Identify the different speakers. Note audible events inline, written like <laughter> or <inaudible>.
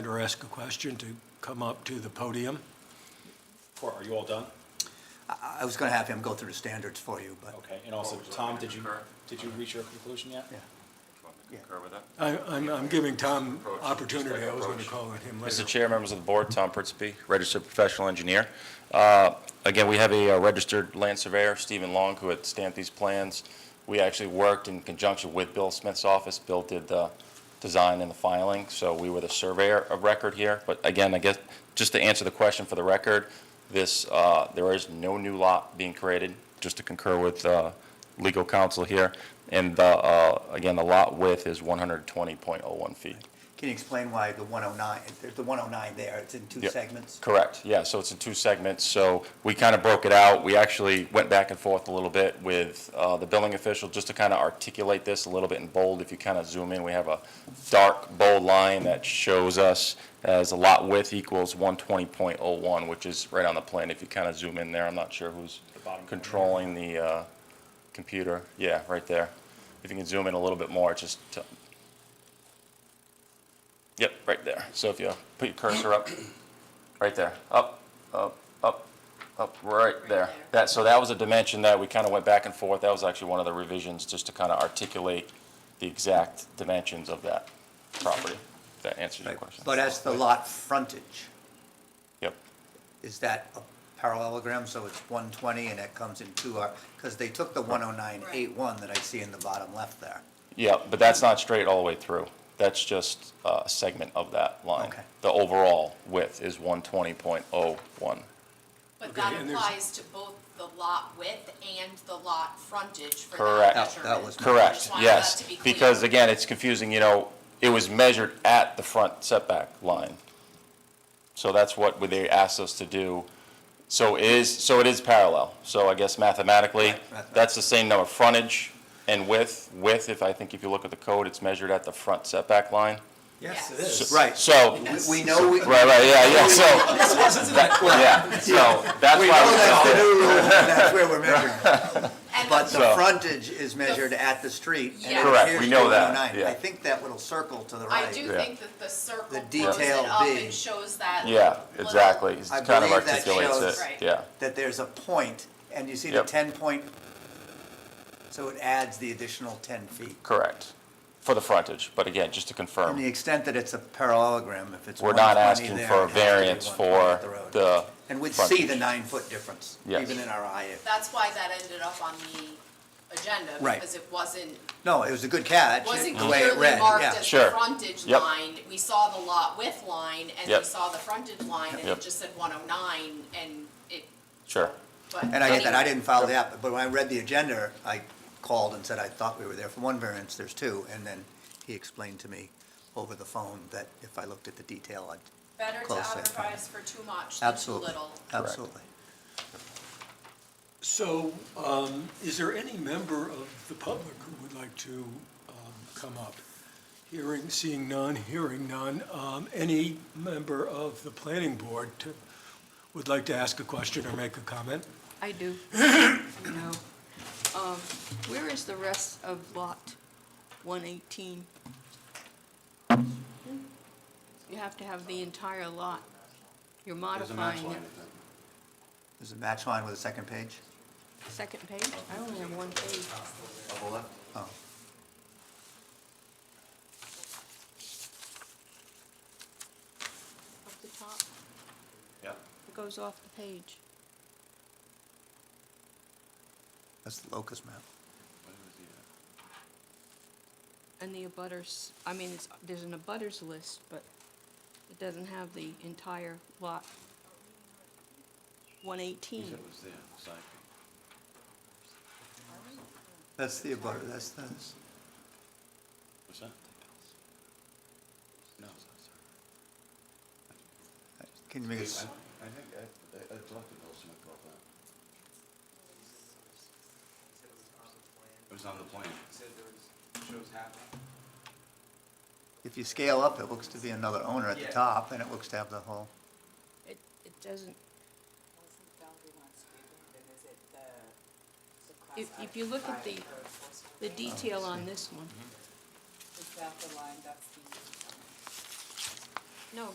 Speaker 1: or ask a question to come up to the podium.
Speaker 2: Cor, are you all done?
Speaker 3: I I was going to have him go through the standards for you, but.
Speaker 2: Okay, and also, Tom, did you, did you reach your conclusion yet?
Speaker 3: Yeah.
Speaker 4: Do you want me to concur with that?
Speaker 1: I- I'm I'm giving Tom
Speaker 4: Approach,
Speaker 1: opportunity, I was going to
Speaker 4: approach.
Speaker 1: call on him later.
Speaker 4: Mr. Chair, members of the board, Tom Pritzby, registered professional engineer. Uh, Again, we have a uh, registered land surveyor, Stephen Long, who had stamped these plans. We actually worked in conjunction with Bill Smith's office. Bill did the design and the filing, so we were the surveyor of record here. But again, I guess, just to answer the question for the record, this, uh, there is no new lot being created, just to concur with uh, legal counsel here. And the, uh, again, the lot width is 120.01 feet.
Speaker 3: Can you explain why the 109, there's the 109 there, it's in two
Speaker 4: Yeah.
Speaker 3: segments?
Speaker 4: Correct, yeah, so it's in two segments, so we kind of broke it out, we actually went back and forth a little bit with uh, the billing official, just to kind of articulate this a little bit in bold, if you kind of zoom in, we have a dark bold line that shows us as a lot width equals 120.01, which is right on the plan, if you kind of zoom in there, I'm not sure who's
Speaker 2: The bottom corner.
Speaker 4: controlling the uh, computer, yeah, right there. If you can zoom in a little bit more, it's just, to- yep, right there, so if you put your cursor up. Right there, up, up, up, up, right there. That, so that was a dimension that we kind of went back and forth. That was actually one of the revisions, just to kind of articulate the exact dimensions of that property. If That answers your
Speaker 3: Right.
Speaker 4: question.
Speaker 3: But as the lot frontage,
Speaker 4: Yep,
Speaker 3: is that a parallelogram, so it's 120 and that comes in two, because they took the 10981 that I see in the bottom left there.
Speaker 4: yep, but that's not straight all the way through. That's just uh, a segment of that line.
Speaker 3: Okay.
Speaker 4: The overall width is one twenty point oh one.
Speaker 5: But that
Speaker 1: and there's-
Speaker 5: applies to both the lot width and the lot frontage for
Speaker 4: Correct.
Speaker 5: that
Speaker 4: That-
Speaker 3: that
Speaker 5: measurement.
Speaker 3: was my
Speaker 5: I
Speaker 4: Correct,
Speaker 5: just wanted that
Speaker 4: yes,
Speaker 5: to be clear.
Speaker 4: because again, it's confusing, you know, it was measured at the front setback line. So that's what they asked us to do. So it is, so it is parallel. So I guess mathematically,
Speaker 3: mathematically.
Speaker 4: that's the same number, frontage and width. Width, if I think if you look at the code, it's measured at the front setback line.
Speaker 5: Yes, it
Speaker 3: is. Right.
Speaker 4: So, right,
Speaker 3: We- We know, we we know
Speaker 4: right, yeah, yeah, so, yeah,
Speaker 3: <laughs>
Speaker 4: so that's
Speaker 3: that's the
Speaker 4: why.
Speaker 3: new rule, and that's where we're
Speaker 4: <laughs>
Speaker 3: measuring.
Speaker 5: And
Speaker 3: But
Speaker 5: the-
Speaker 3: the
Speaker 4: So-
Speaker 3: frontage is measured at the street. and it
Speaker 5: Correct,
Speaker 4: we
Speaker 3: appears to
Speaker 4: know
Speaker 3: be
Speaker 4: that,
Speaker 3: 109.
Speaker 4: yeah.
Speaker 3: I think that little circle to the right.
Speaker 5: I do
Speaker 4: Yeah.
Speaker 5: think that the circle
Speaker 3: The
Speaker 5: blows
Speaker 3: detail
Speaker 5: it up
Speaker 3: B.
Speaker 5: and shows that.
Speaker 4: we- Yeah,
Speaker 5: little-
Speaker 4: exactly. It
Speaker 3: I
Speaker 4: kind of
Speaker 3: believe that
Speaker 4: articulates
Speaker 3: shows-
Speaker 4: it,
Speaker 5: Right.
Speaker 4: yeah.
Speaker 3: that there's a point, and you see the
Speaker 4: Yep.
Speaker 3: ten point, so it adds the additional ten feet.
Speaker 4: Correct, for the frontage, but again, just to
Speaker 3: And the
Speaker 4: confirm,
Speaker 3: extent that it's a parallelogram, if it's
Speaker 4: we're not
Speaker 3: 120
Speaker 4: asking
Speaker 3: there,
Speaker 4: for a
Speaker 3: it has to be
Speaker 4: variance for
Speaker 3: 120 at road.
Speaker 4: the,
Speaker 3: And we'd see the
Speaker 4: frontage.
Speaker 3: nine foot difference,
Speaker 4: Yes.
Speaker 3: even in our eye. if-
Speaker 5: That's why that ended up on the agenda,
Speaker 3: Right.
Speaker 5: because it wasn't,
Speaker 3: No, it was a good catch,
Speaker 5: wasn't
Speaker 3: the way it
Speaker 5: clearly
Speaker 3: read,
Speaker 5: marked
Speaker 3: yeah.
Speaker 5: as the
Speaker 4: Sure.
Speaker 5: frontage
Speaker 4: Yep.
Speaker 5: line. We saw the lot width line and we
Speaker 4: Yep.
Speaker 5: saw the frontage line and
Speaker 4: Yep.
Speaker 5: it just said one oh nine and it,
Speaker 4: sure,
Speaker 5: but.
Speaker 3: And I get that, I
Speaker 5: anyway.
Speaker 3: didn't follow that, but when I read the agenda, I called and said I thought we were there for one variance, there's two, and then he explained to me over the phone that if I looked at the detail, I'd
Speaker 5: Better to
Speaker 3: Close that.
Speaker 5: advertise for too much than too
Speaker 3: Absolutely,
Speaker 5: little.
Speaker 3: absolutely.
Speaker 1: So um, is there any member of the public who would like to um, come up? Hearing, seeing none, hearing none. Um, Any member of the planning board to- would like to ask a question or make a comment?
Speaker 6: I <coughs> do. No. Um, Where is the rest of lot 118? You have to have the entire lot. You're modifying it.
Speaker 3: There's a match line with a second page?
Speaker 6: Second page? I only have one page.
Speaker 3: Oh,
Speaker 6: Up the top, it goes off the page.
Speaker 3: that's the locust map.
Speaker 6: And the abutters, I mean, it's- there's an abutters list, but it doesn't have the entire lot 118.
Speaker 3: That's the abutter, that's the,
Speaker 2: What's that? No.
Speaker 3: can you make it,
Speaker 7: I think, I, I I talked to Bill Smith about that. It was on the plan.
Speaker 3: if you scale up, it looks to be another owner at the top, and it looks to have the whole,
Speaker 6: It it doesn't If- if you look at the- The detail on this one,
Speaker 8: Is that the line, that's